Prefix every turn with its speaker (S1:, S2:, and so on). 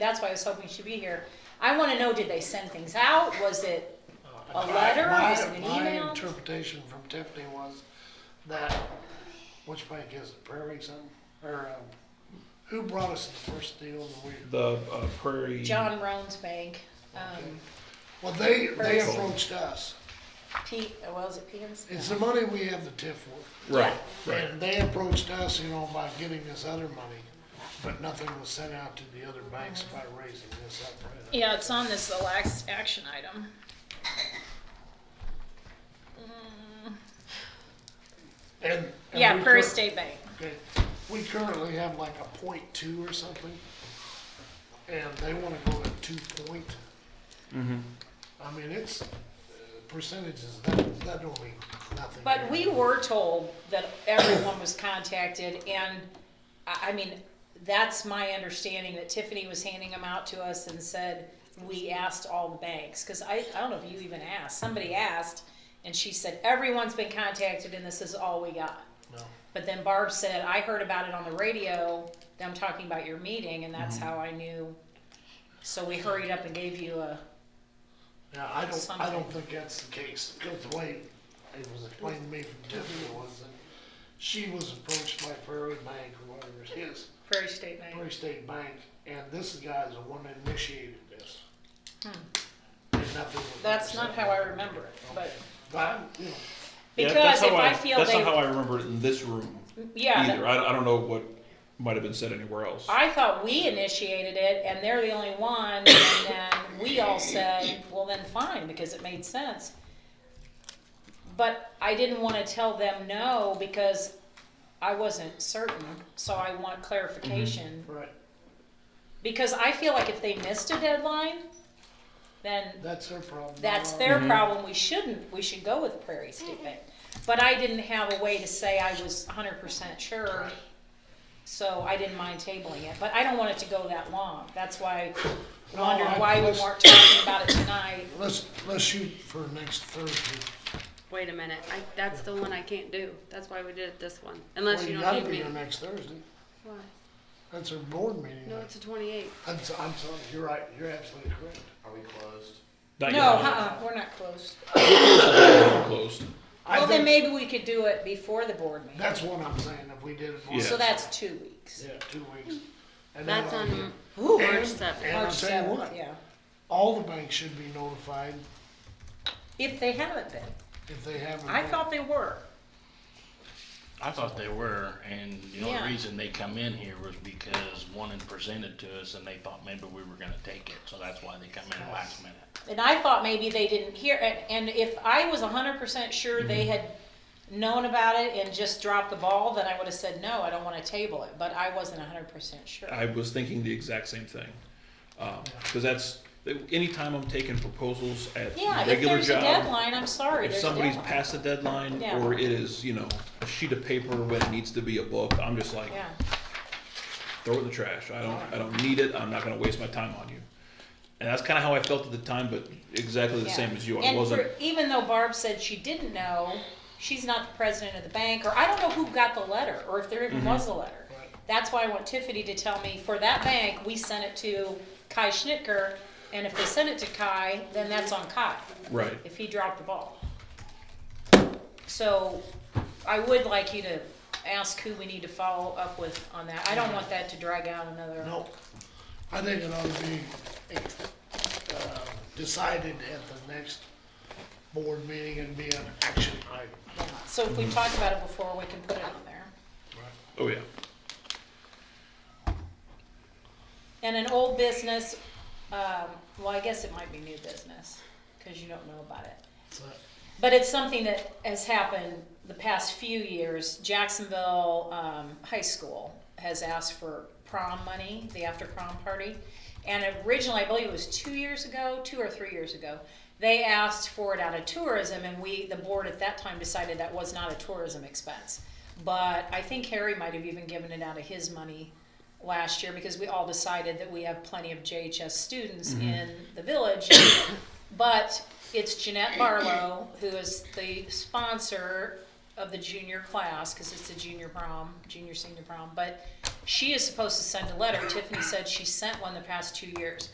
S1: that's why I was hoping she'd be here. I wanna know, did they send things out? Was it a letter?
S2: My-
S1: Was it an
S2: My
S1: email?
S2: interpretation from Tiffany was that, which bank is it, Prairie Sun, or, um, who brought us the first deal that we,
S3: The uh, Prairie.
S1: John Roan's bank, um,
S2: well, they, they
S1: Prairie Sun.
S2: approached us.
S1: Pete, well, is uh, it Peter's?
S2: It's the money we have the TIF for.
S3: Right, right.
S2: And they approached us, you know, about getting this other money, but nothing was sent out to the other banks by raising this up.
S4: Yeah, it's on this the last action item. Mm,
S2: And. and
S4: Yeah,
S2: we
S4: Prairie
S2: cur-
S4: State Bank.
S2: Okay, we currently have like a point two or something, and they wanna go to two point. I mean, it's, uh, percentages, that, that don't mean nothing.
S1: But we were told that everyone was contacted, and I, I mean, that's my understanding that Tiffany was handing them out to us and said, we asked all the banks, because I, I don't know if you even asked, somebody asked, and she said, everyone's been contacted and this is all we got.
S2: No.
S1: But then Barb said, I heard about it on the radio, them talking about your meeting, and
S3: Mm-hmm.
S1: that's how I knew. So we hurried up and gave you a,
S2: Yeah, I don't, I
S1: Something.
S2: don't think that's the case, because the way it was explained to me from Tiffany was that she was approached by Prairie Bank or whatever it is,
S1: Prairie State Bank.
S2: Prairie State Bank, and this guy's the one that initiated this. And nothing was
S1: Hmm. That's not
S2: sent
S1: how I
S2: out.
S1: remember it, but,
S2: But, you know,
S3: Yeah,
S1: because
S3: that's
S1: if
S3: how
S1: I feel
S3: That's
S1: they,
S3: not how I remember it in this room
S1: yeah, that-
S3: either. I, I don't know what might have been said anywhere else.
S1: I thought we initiated it and they're the only one, and then we all said, well, then fine, because it made sense. But I didn't wanna tell them no because I wasn't certain, so I want clarification.
S2: right,
S1: Because I feel like if they missed a deadline, then
S2: that's their problem.
S1: that's
S2: not
S1: their problem, we shouldn't, we should go with Prairie State Bank. But I didn't have a way to say I was hundred percent sure, so I didn't mind tabling it, but I don't want it to go that long, that's why I
S2: No,
S1: wondered
S2: I-
S1: why we
S2: let's-
S1: weren't talking about it tonight.
S2: Let's, let's shoot for next Thursday.
S5: Wait a minute, I, that's the one I can't do. That's why we did it this one, unless
S2: Well,
S5: you
S2: you
S5: don't
S2: gotta
S5: need
S2: be
S5: me.
S2: here next Thursday.
S5: Why?
S2: That's our board meeting.
S5: No, it's a twenty-eight.
S2: I'm, so- I'm sorry, you're right, you're absolutely correct.
S6: Are we closed?
S3: Not
S1: No,
S3: yet.
S1: uh-uh, we're not close.
S3: We're closed.
S2: I
S1: Well, then
S2: think-
S1: maybe we could do it before the board meeting,
S2: That's what I'm saying, if we did it. on-
S3: Yeah.
S1: so that's two weeks.
S2: Yeah, two weeks. And then
S5: Hmm. That's
S2: I'll get-
S5: on
S1: Ooh,
S5: March
S2: And-
S5: seventh.
S2: and I'll
S1: March
S2: tell you
S1: seventh,
S2: what,
S1: Yeah,
S2: all the banks should be notified
S1: if they haven't been,
S2: if they haven't.
S1: I
S2: been.
S1: thought they were,
S6: I thought they were, and the
S1: Yeah.
S6: only reason they come in here was because one had presented to us and they thought maybe we were gonna take it, so that's why they come in last minute.
S1: And I thought maybe they didn't hear, and, and if I was hundred percent sure they
S3: Mm-hmm.
S1: had known about it and just dropped the ball, then I would have said, no, I don't wanna table it, but I wasn't hundred percent sure.
S3: I was thinking the exact same thing. Because that's, anytime I'm taking proposals at
S1: Yeah, if
S3: regular
S1: there's a
S3: job,
S1: deadline, I'm sorry,
S3: if
S1: there's a
S3: somebody's
S1: deadline.
S3: past a deadline
S1: Yeah.
S3: or it is, you know, a sheet of paper when it needs to be a book, I'm just like,
S1: Yeah,
S3: throw it in the trash. I don't, I don't need it. I'm not going to waste my time on you. And that's kind of how I felt at the time, but exactly the
S1: yeah.
S3: same as you. I
S1: And
S3: wasn't.
S1: for, even though Barb said she didn't know, she's not the president of the bank, or I don't know who got the letter, or if there
S3: Mm-hmm.
S1: even was a letter. That's why I want Tiffany to tell me, for that bank, we sent it to Kai Schnitker, and if they sent it to Kai, then that's on Kai.
S3: right.
S1: if he dropped the ball. So I would like you to ask who we need to follow up with on that. I don't want that to drag out another.
S2: No, I think it ought to be, uh, decided at the next board meeting and be an action item.
S1: So if we talked about it before, we can put it on there.
S3: Oh, yeah.
S1: And an old business, um, well, I guess it might be new business, cause you don't know about it.
S2: So-
S1: But it's something that has happened the past few years. Jacksonville um, High School has asked for prom money, the after prom party. And originally, I believe it was two years ago, two or three years ago, they asked for it out of tourism, and we, the board at that time, decided that was not a tourism expense. But I think Harry might have even given it out of his money last year because we all decided that we have plenty of JHS students in the village. But it's Jeanette Barlow, who is the sponsor of the junior class, cause it's a junior prom, junior senior prom, but she is supposed to send a letter. Tiffany said she sent one the past two years.